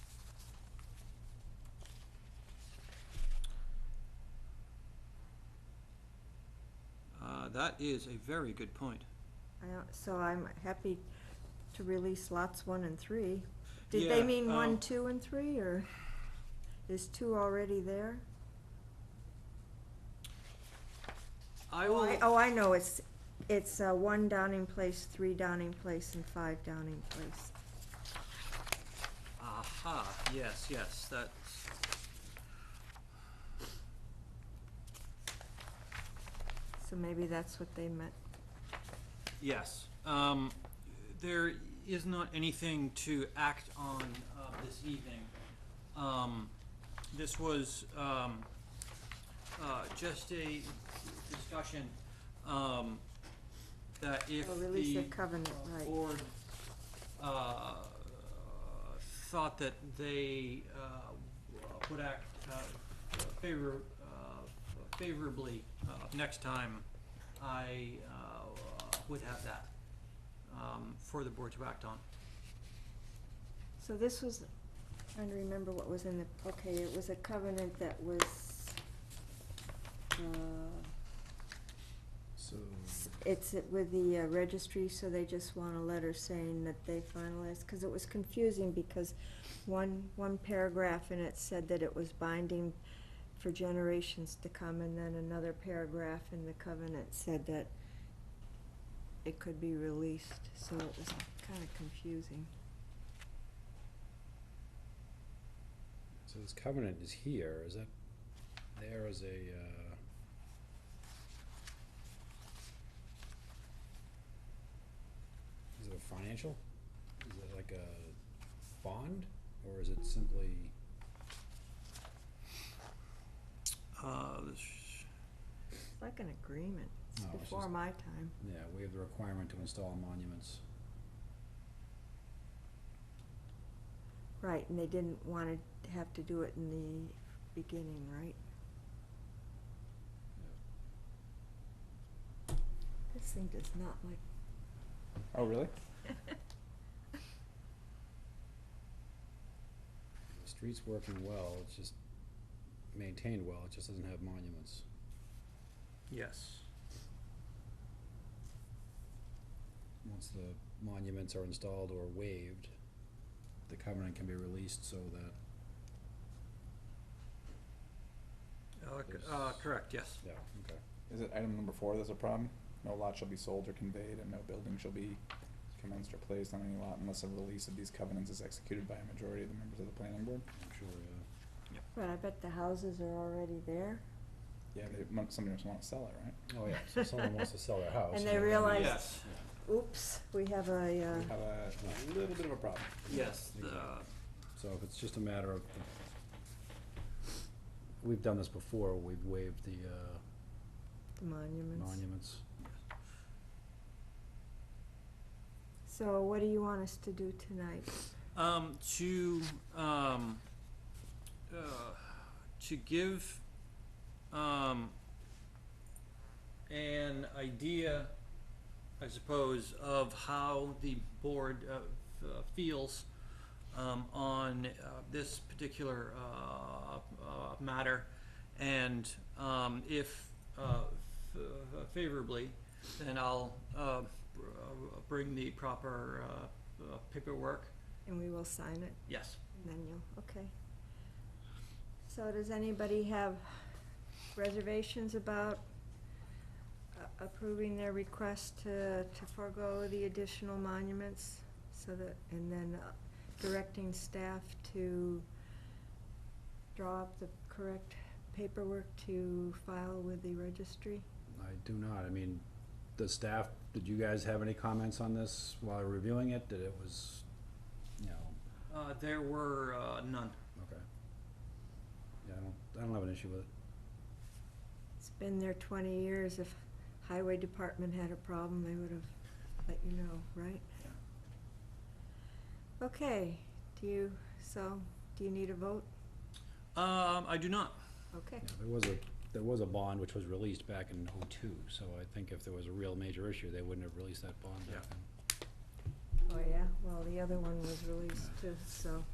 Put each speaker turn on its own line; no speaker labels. Uh, that is a very good point.
I don't- So I'm happy to release lots one and three. Did they
Yeah,
mean one,
um,
two, and three, or is two already there?
I
Oh,
will,
I- Oh, I know, it's, it's uh, one Downing Place, three Downing Place, and five Downing Place.
aha, yes, yes, that's,
So maybe that's what they meant.
yes. Um, There is not anything to act on uh, this evening. Um, This was um, uh, just a discussion um, that if
Or release
the
of covenant,
uh,
right.
board uh, thought that they uh, would act uh, favor uh, favorably uh, next time, I uh, would have that um, for the board to act on.
So this was, trying to remember what was in the, okay, it was a covenant that was, uh,
So,
S- It's with the uh, registry, so they just want a letter saying that they finalized, because it was confusing, because one, one paragraph in it said that it was binding for generations to come, and then another paragraph in the covenant said that it could be released, so it was kind of confusing.
so this covenant is here, is that, there is a, uh, is it a financial? Is it like a bond, or is it simply,
Uh, this-
It's like an agreement, it's
No, it's
before
just-
my time.
yeah, we have the requirement to install monuments?
Right, and they didn't want to have to do it in the beginning, right? This thing does not like
Oh, really? The street's working well, it's just maintained well, it just doesn't have monuments.
Yes.
once the monuments are installed or waived, the covenant can be released so that,
Uh, c- uh, Correct, yes.
yeah, okay.
Is it item number four, there's a problem? No lot shall be sold or conveyed, and no building shall be commenced or placed on any lot unless a release of these covenants is executed by a majority of the members of the planning board?
I'm sure, yeah.
But I bet the houses are already there.
Yeah, they, mon- somebody must wanna sell it, right?
Oh, yeah, so someone wants to sell their house.
And they
they're-
realize-
Yes,
Oops, we have a,
We
uh,
have a little bit of a problem.
yes, the-
So if it's just a matter of, we've done this before, we've waived the, uh,
the monuments.
monuments.
So what do you want us to do tonight?
um, to, um, uh, to give, um, an idea, I suppose, of how the board, uh, f- uh, feels, um, on, uh, this particular, uh, uh, matter. And, um, if, uh, f- uh, favorably, then I'll, uh, br- uh, bring the proper, uh, uh, paperwork,
And we will sign it,
Yes.
and then you'll, okay. So does anybody have reservations about a- approving their request to, to forego the additional monuments? So that, and then uh, directing staff to draw up the correct paperwork to file with the registry?
I do not, I mean, the staff, did you guys have any comments on this while reviewing it, that it was, you know,
Uh, there were uh, none.
okay? Yeah, I don't, I don't have an issue with it.
It's been there twenty years. If highway department had a problem, they would have let you know, right? Okay, do you, so, do you need a vote?
Um, I do not.
Okay,
Yeah, there was a, there was a bond which was released back in oh-two, so I think if there was a real major issue, they wouldn't have released that bond
Yeah.
back then.
oh yeah, well, the other one was released too, so.